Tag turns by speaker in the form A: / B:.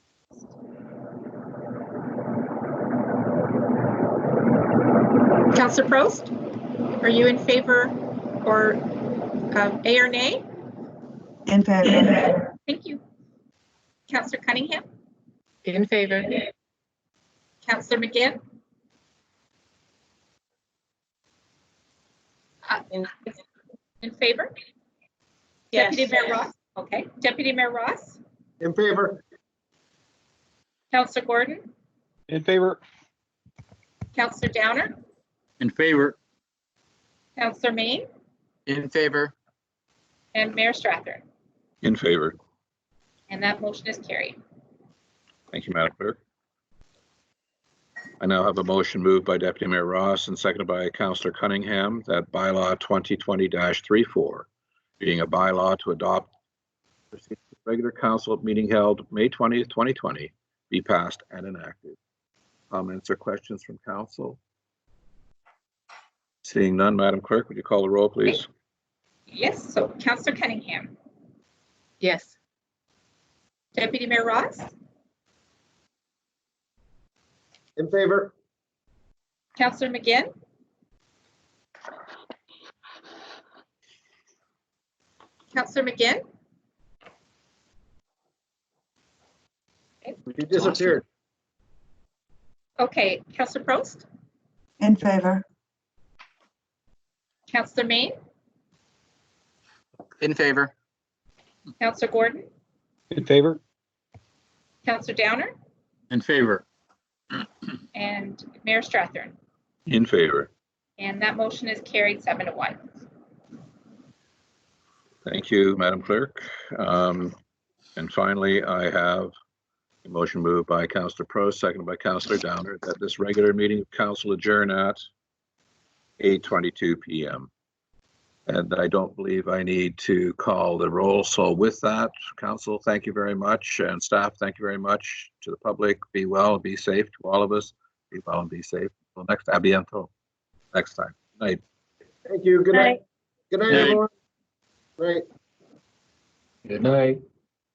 A: Counselor Prost, are you in favor or um, A or nay?
B: In favor.
A: Thank you. Counselor Cunningham,
C: In favor.
A: Counselor McGinn, Uh,
C: In-
A: in favor? Deputy Mayor Ross, okay. Deputy Mayor Ross,
D: In favor?
A: Counselor Gordon,
E: In favor?
A: Counselor Downer,
F: In favor?
A: Counselor Maine,
F: In favor.
A: and Mayor Strathern.
G: In favor.
A: And that motion is carried.
G: Thank you, Madam Clerk. I now have a motion moved by Deputy Mayor Ross and seconded by Councillor Cunningham that bylaw 2020-34, being a bylaw to adopt the regular council meeting held May 20th, 2020, be passed and enacted. Comments or questions from council? Seeing none, Madam Clerk, would you call the roll, please?
A: Yes, so Counselor Cunningham,
C: Yes.
A: Deputy Mayor Ross,
D: In favor?
A: Counselor McGinn, Counselor McGinn,
D: You disappeared.
A: okay. Counselor Prost,
B: In favor.
A: Counselor Maine,
F: In favor?
A: Counselor Gordon,
E: In favor?
A: Counselor Downer,
F: In favor?
A: and Mayor Strathern.
G: In favor.
A: And that motion is carried seven to one.
G: Thank you, Madam Clerk. Um, And finally, I have a motion moved by Counselor Pro, seconded by Counselor Downer, that this regular meeting of council adjourn at 8:22 PM. And I don't believe I need to call the roll. So with that, council, thank you very much, and staff, thank you very much. To the public, be well, be safe to all of us. Be well and be safe. Until next, abiento, next time. Night.
D: Thank you. Good night. Good night,
F: Night.
D: everyone. Right.
H: Good night.